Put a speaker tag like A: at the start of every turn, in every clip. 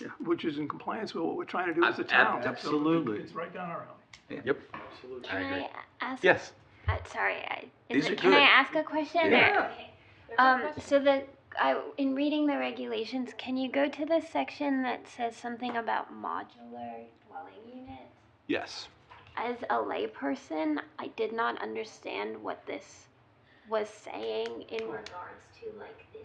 A: Yeah, which is in compliance with what we're trying to do as a
B: Ab-
A: town. So it-
C: absolutely.
A: It's right down our alley.
B: Yep.
D: Can
B: I agree.
D: I ask?
B: Yes.
D: Uh, sorry, I,
B: These
D: is
B: are
D: it, can I
B: good.
D: ask a question? or-
B: Yeah.
D: Okay. Um, so the, I, in reading the regulations, can you go to the section that says something about modular dwelling units?
B: Yes.
D: As a layperson, I did not understand what this was saying in regards to like this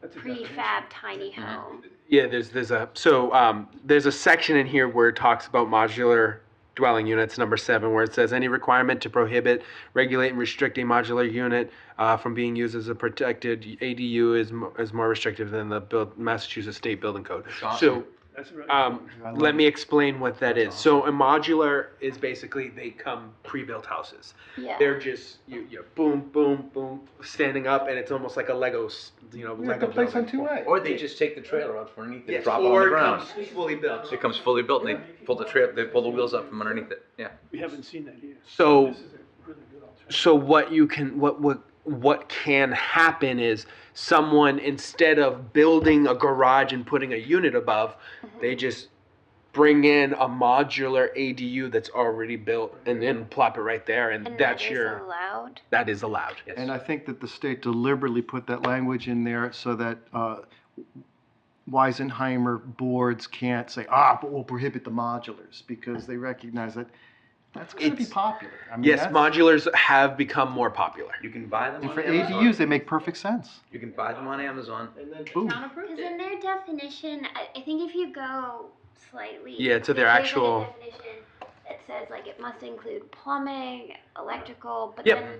A: That's a definition.
D: prefab tiny
B: Mhm.
D: home.
B: Yeah, there's there's a so um, there's a section in here where it talks about modular dwelling units, number seven, where it says any requirement to prohibit, regulate, and restrict a modular unit uh, from being used as a protected ADU is mo- is more restrictive than the build, Massachusetts State Building Code. So
A: That's right.
E: Uh,
B: um,
C: I love
B: let me explain what that
C: That's
B: is. So a modular is basically they come pre-built houses.
D: Yeah.
B: They're just you, you boom, boom, boom, standing up, and it's almost like a Lego, s- you know, Lego building.
C: A.
E: Or they just take the trailer out from underneath it,
B: Yes,
E: and drop it on
B: or
E: the
B: it
E: ground.
B: comes fully built.
E: It comes fully built, and they pull the trail, they pull the wheels up from underneath it. Yeah.
A: We haven't seen that yet.
B: So-
A: This is a really good alternative.
B: so what you can what what what can happen is someone instead of building a garage and putting a unit above they just bring in a modular adu that's already built and then plop it right there and,
D: And that
B: that's
D: is
B: your
D: allowed.
B: that is allowed yes
C: And I think that the state deliberately put that language in there so that uh, Weisenheimer boards can't say, ah, but we'll prohibit the modulars, because they recognize that that's going to be
B: It's-
C: popular. I mean,
B: yes
C: that's-
B: modulars have become more popular
E: You can buy them
C: And
E: on
C: for
E: Amazon.
C: ADUs, they make perfect sense.
E: You can buy them on Amazon.
C: Boom.
D: Because in their definition, I, I think if you go slightly.
B: Yeah, to their
D: there's a
B: actual-
D: definition That says like it must include plumbing, electrical, but
B: Yep.
D: then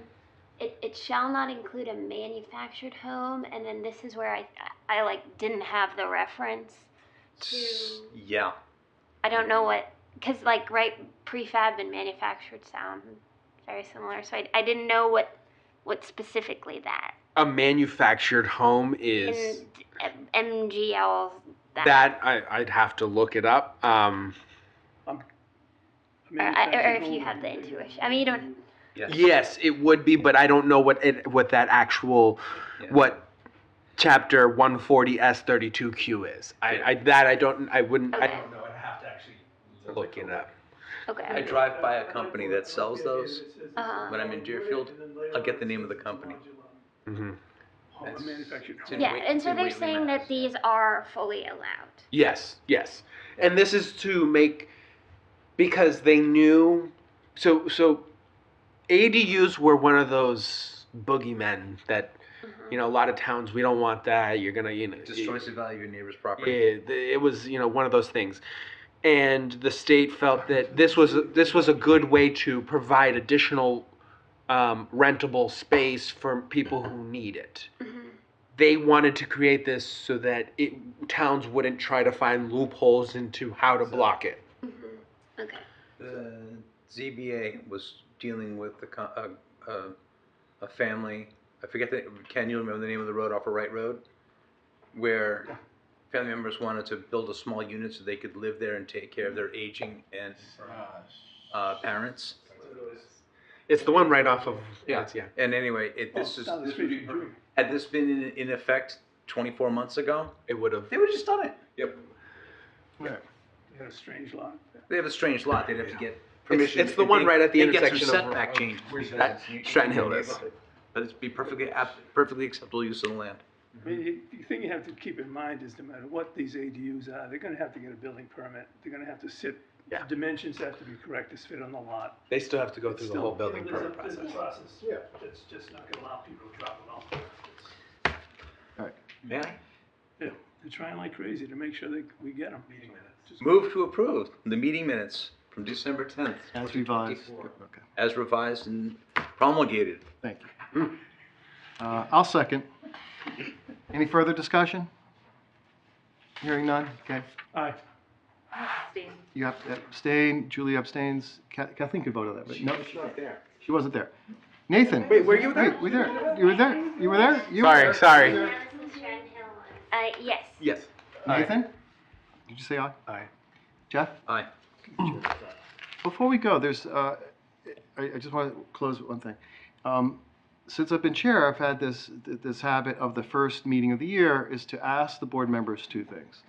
D: it, it shall not include a manufactured home, and then this is where I, I like didn't have the reference to,
E: Yeah.
D: I don't know what, cause like, right, prefab and manufactured sound very similar, so I, I didn't know what, what specifically that.
B: a manufactured home
D: in
B: is
D: M- MGL,
B: that I, i'd have to look it up um,
D: or, or if you have the intuition. I mean, you don't.
E: Yes.
B: yes it would be but i don't know what it, what that actual
E: Yeah.
B: what chapter 140S32Q is. I, I that I don't I wouldn't I
D: Okay.
B: don't know. I'd have to actually look it up.
E: I
D: Okay.
E: drive by a company that sells those.
D: Uh-huh.
E: When I'm in Deerfield, I'll get the name of the company.
B: hmm
A: Home, Oh, a manufactured
E: It's
A: home.
E: in
D: Yeah,
E: Wait-
D: and so
E: in
D: they're
E: Waitley,
D: saying that
E: Mass.
D: these are fully allowed.
B: Yes, yes. And this is to make because they knew so so ADUs were one of those boogeymen that you know a lot of towns we don't want that. You're going to you know
E: It destroys the value of your neighbor's property.
B: Yeah, th- it was you know one of those things, and the state felt that this was this was a good way to provide additional um, rentable space for people who need it.
D: Mhm.
B: They wanted to create this so that it towns wouldn't try to find loopholes into how to block it.
D: Mhm. Okay.
E: The ZBA was dealing with the co- a, a, a family. I forget the. Can you remember the name of the road off of Wright Road, where family members wanted to build a small unit so they could live there and take care of their aging and uh, parents.
B: It's the one right off of it's- yeah.
E: And anyway, it, this
A: Well,
E: is
A: down the
E: this
A: street
E: would
A: from
E: be-
A: Drew.
E: had this been in, in effect 24 months ago,
B: It would have
E: they would have just done it. Yep.
A: They had a strange lot.
E: They have a strange lot. They'd have to get
B: It's,
E: permission.
B: it's the
E: They-
B: one right at the
E: they get some
B: intersection of
E: setback
B: of-
E: change.
B: Strat- Stratton Hill is.
E: But it'd be perfectly ab- perfectly acceptable use of the land.
A: I mean, you- the thing you have to keep in mind is no matter what these ADUs are, they're gonna have to get a building permit. They're gonna have to sit,
B: Yeah.
A: dimensions have to be correct to fit on the lot.
B: They still have to go through the
A: Still,
B: whole building
A: there's a-
B: permit
A: there's a
B: process.
A: process. Yeah. That's just not gonna allow people to drop it off.
E: May I?
A: Yeah, they're trying like crazy to make sure that we get them. Meeting minutes.
E: Move to approve the meeting minutes from December 10th
C: As revised.
E: 2024,
C: Okay,
E: as revised and promulgated.
C: thank you. Uh, I'll second. Any further discussion? Hearing none? Okay.
A: Aye.
C: You have to abstain. Julie abstains. Ka- Kathleen could vote on that, but no,
E: not there.
C: she wasn't there. Nathan?
B: Wait, were you there?
C: Wait, were you there? You were there? You were there? You were
B: Sorry,
C: there.
B: sorry.
C: You were there.
D: Uh, yes.
B: Yes.
C: Nathan? Did you say aye?
B: Aye.
C: Jeff?
E: Aye.
C: Before we go, there's, uh, I, I just want to close with one thing. Um, since I've been chair, I've had this, th- this habit of the first meeting of the year is to ask the board members two things.